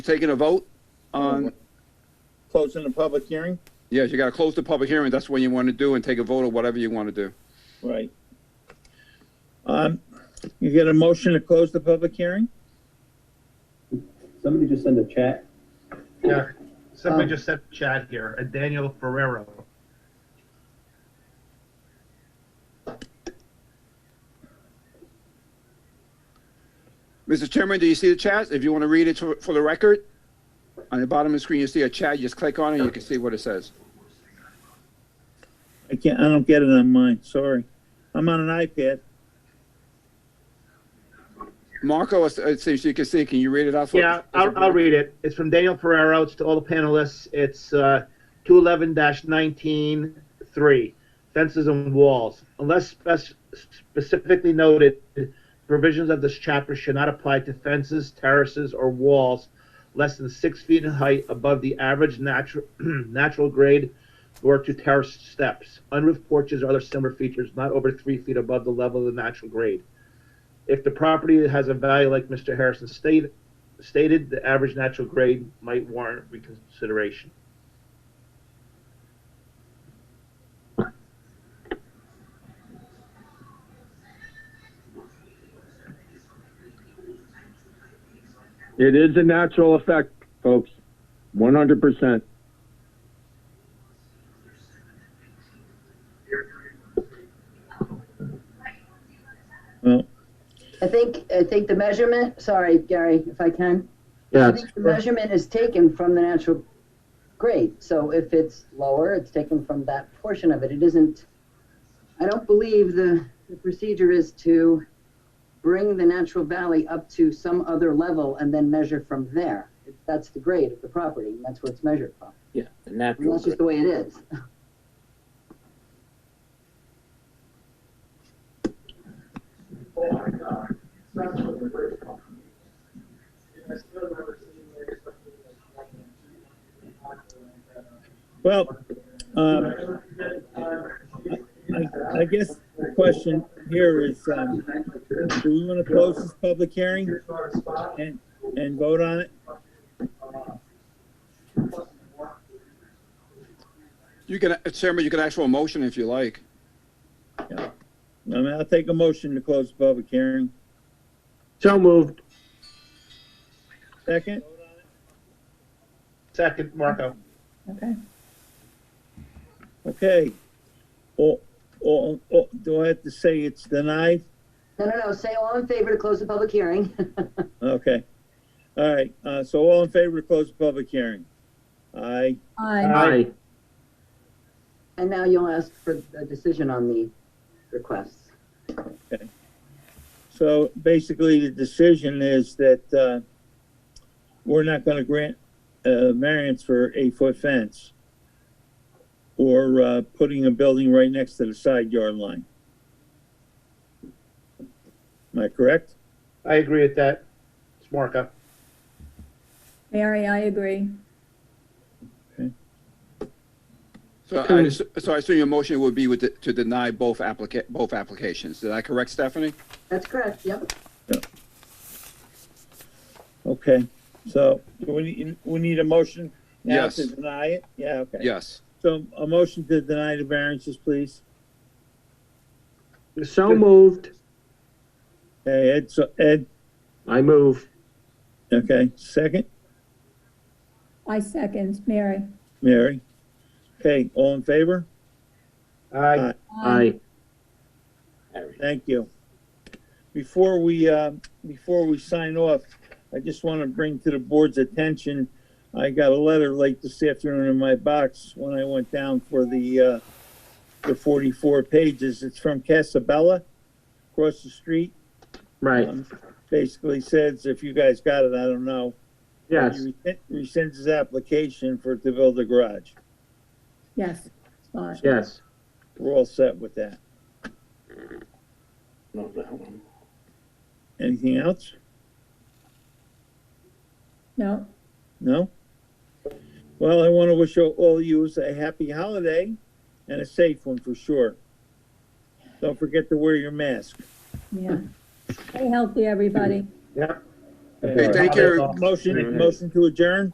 taking a vote on, Closing the public hearing? yes, you gotta close the public hearing, that's what you wanna do, and take a vote or whatever you wanna do. Right. Um, you get a motion to close the public hearing? Somebody just send a chat. Yeah, somebody Um, just sent a chat here, uh, Daniel Ferrero. Mr. Chairman, do you see the chat? If you wanna read it for, for the record, on the bottom of the screen, you see a chat, you just click on it, and you can see what it says. I can't, I don't get it on mine, sorry. I'm on an iPad. Marco, it it seems you can see, can you read it out? for- Yeah, I'll, I'll read it. It's from Daniel Ferrero. It's to all the panelists. It's uh, 211-19-3, fences and walls. Unless spec- specifically noted, provisions of this chapter should not apply to fences, terraces, or walls less than six feet in height above the average natural natural grade or to terrace steps, unroofed porches, or other similar features not over three feet above the level of the natural grade. If the property has a value like Mr. Harrison stated, stated, the average natural grade might warrant reconsideration. It is a natural effect, folks. One hundred percent. I think, I think the measurement, sorry, Gary, if I can. I think the measurement is taken from the natural grade, so if it's lower, it's taken from that portion of it. It isn't, I don't believe the, the procedure is to bring the natural valley up to some other level and then measure from there. That's the grade of the property, and that's where it's measured from. Yeah, the And natural. that's just the way it is. Well, um, I, I guess the question here is, um, do we want to close this public hearing and, and vote on it? You can, uh, Chairman, you can ask for a motion if you like. I mean, I'll take a motion to close the public hearing. So moved. Second, Second, Marco. Okay. okay. Or, or, or, do I have to say it's denied? No, no, no, say all in favor to close the public hearing. Okay. All right, uh, so all in favor to close the public hearing? Aye. Aye. And now you'll ask for a decision on the requests. So basically, the decision is that, uh, we're not gonna grant, uh, variance for eight-foot fence or, uh, putting a building right next to the side yard line. Am I correct? I agree with that. It's Marco. Mary, I agree. So I, just- so I assume your motion would be with, the- to deny both applica, both applications. Did I correct, Stephanie? That's correct, yep. Okay, so do we need, we need a motion now to Yes. deny it? Yeah, okay. Yes. So a motion to deny the variances, please. So moved. Hey, Ed, so Ed, I move. okay, second, I second, Mary. Mary. Okay, all in favor? Aye. Aye. Harry. Thank you. Before we, uh, before we sign off, I just want to bring to the board's attention, I got a letter late this afternoon in my box when I went down for the, uh, the 44 pages. It's from Casabella, across the street. Right. Um, Basically says, if you guys got it, I don't know. Yes. He rescind- Rescinds his application for to build a garage. Yes. Aye. Yes. We're all set with that. No, that one. Anything else? No, No? Well, I want to wish all of you a happy holiday and a safe one for sure. Don't forget to wear your mask. yeah. Stay healthy, everybody. Yep. Okay, thank you. Oh, Motion, motion to adjourn?